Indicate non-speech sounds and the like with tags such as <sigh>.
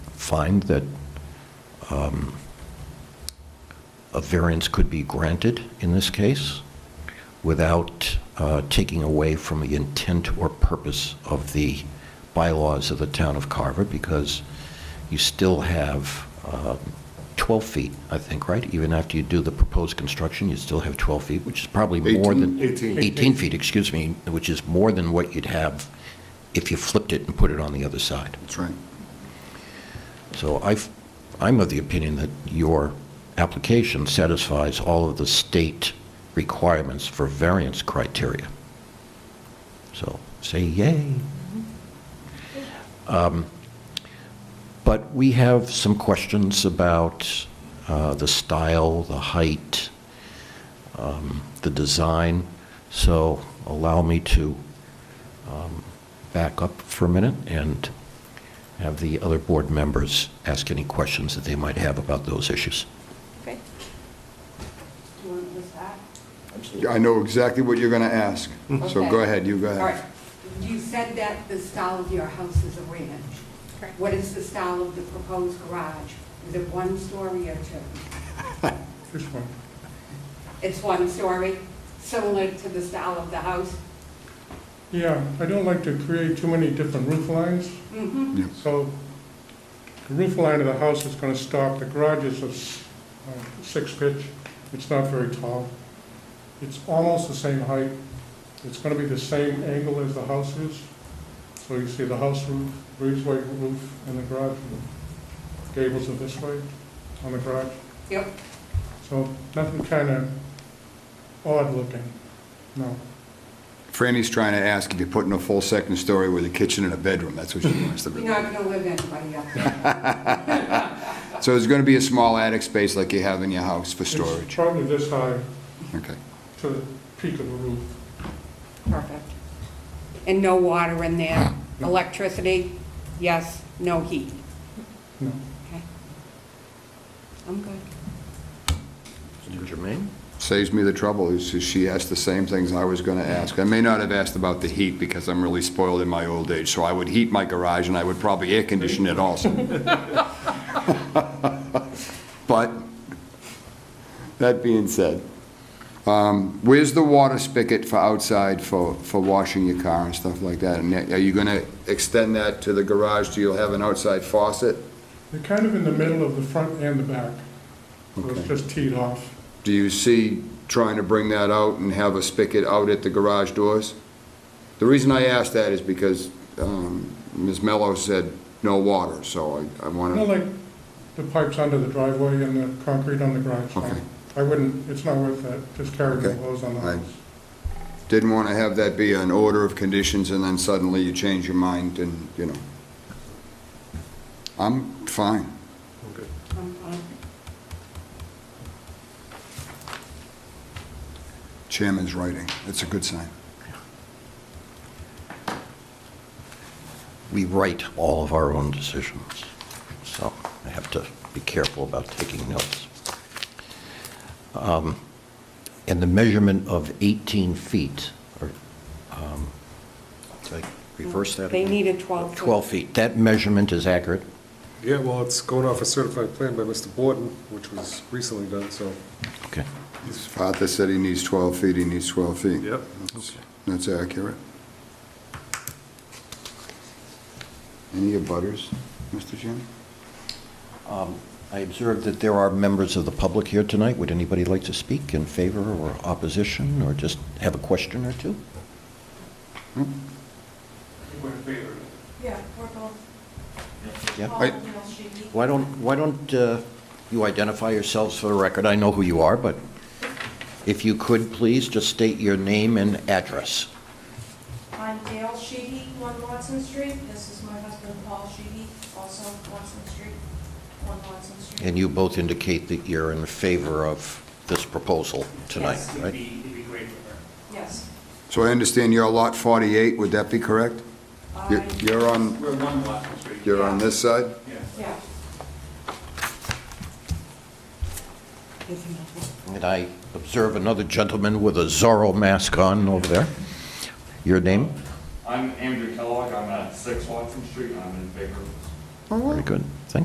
find that um, a variance could be granted in this case without uh, taking away from the intent or purpose of the bylaws of the town of Carver, because you still have um, 12 feet, I think, right? Even after you do the proposed construction, you still have 12 feet, which is probably more than... 18. 18 feet, excuse me, which is more than what you'd have if you flipped it and put it on the other side. That's right. So i am of the opinion that your application satisfies all of the state requirements for variance criteria. So say yay. Um, But we have some questions about uh, the style, the height, um, the design, so allow me to um, back up for a minute and have the other board members ask any questions that they might have about those issues. Okay. Do you want to start? I know exactly what you're going to ask, so go Okay. ahead, you go All right. ahead. You said that the style of your house is a ranch. Correct. What is the style of the proposed garage? Is it one story or two? <laughs> It's one story, similar to the style of the house? Yeah, I don't like to create too many different roof lines, Mm-hmm. Yeah. so the roof line of the house is gonna stop, the garage is a s- uh, six pitch, it's not very tall. It's almost the same height, it's gonna be the same angle as the house is. So you see the house roof, breezeway roof, and the garage roof. Gables are this way on the garage, Yep. so nothing kinda odd looking, no. Franny's trying to ask if you're putting a full second story with a kitchen and a bedroom, that's what she wants to <laughs> You're do. not going to live anybody up <laughs> there. So there's going to be a small attic space like you have in your house for It's <laughs> storage? probably this high Okay. to the peak of the roof. Perfect. And no water in there? Electricity? Yes, no heat? No. Okay. I'm good. Jermaine? Saves me the trouble, is is she asked the same things I was going to ask. I may not have asked about the heat because I'm really spoiled in my old age, so I would heat my garage and I would probably air condition it also. <laughs> But, that being said, um, where's the water spigot for outside for, for washing your car and stuff like that? And are you going to extend that to the garage, do you have an outside faucet? They're kind of in the middle of the front and the back. So it's Okay. just teed off. Do you see trying to bring that out and have a spigot out at the garage doors? The reason I ask that is because um, Ms. Mello said no water, so I want to... You know, like the pipes under the driveway and the concrete on the garage. line. Okay. I wouldn't, it's not worth it, just carry the Okay. hose on the Right. house. Didn't want to have that be an order of conditions and then suddenly you change your mind and, you know. I'm fine. I'm fine. Chairman's writing. That's a good sign. We write all of our own decisions, so I have to be careful about taking notes. Um, And the measurement of 18 feet, or, um, did I reverse that? They again? needed 12 feet. 12 feet. That measurement is accurate? Yeah, well, it's going off a certified plan by Mr. Borden, which was recently done, so, Okay. His father said he needs 12 feet, he needs 12 feet. yep. That's accurate. Any abutters, Mr. Chairman? Um, I observed that there are members of the public here tonight. Would anybody like to speak in favor or opposition, or just have a question or two? Yeah, we're both. Yeah? I- Why don't, why don't uh, you identify yourselves for the record? I know who you are, but if you could, please, just state your name and address. I'm Dale Sheedy, 1 Watson Street. This is my husband, Paul Sheedy, also Watson Street, 1 Watson Street. And you both indicate that you're in favor of this proposal tonight, Yes. It'd right? be, it'd be great for her. Yes. So I understand you're lot 48, would that be correct? You're- I- You're on, We're one Watson Street. you're on this side? Yeah. Yeah, There's another one. And I observe another gentleman with a Zorro mask on over there. Your name? I'm Andrew Kellogg, I'm at six Watson Street, I'm in Big Rivers. Very good. Thank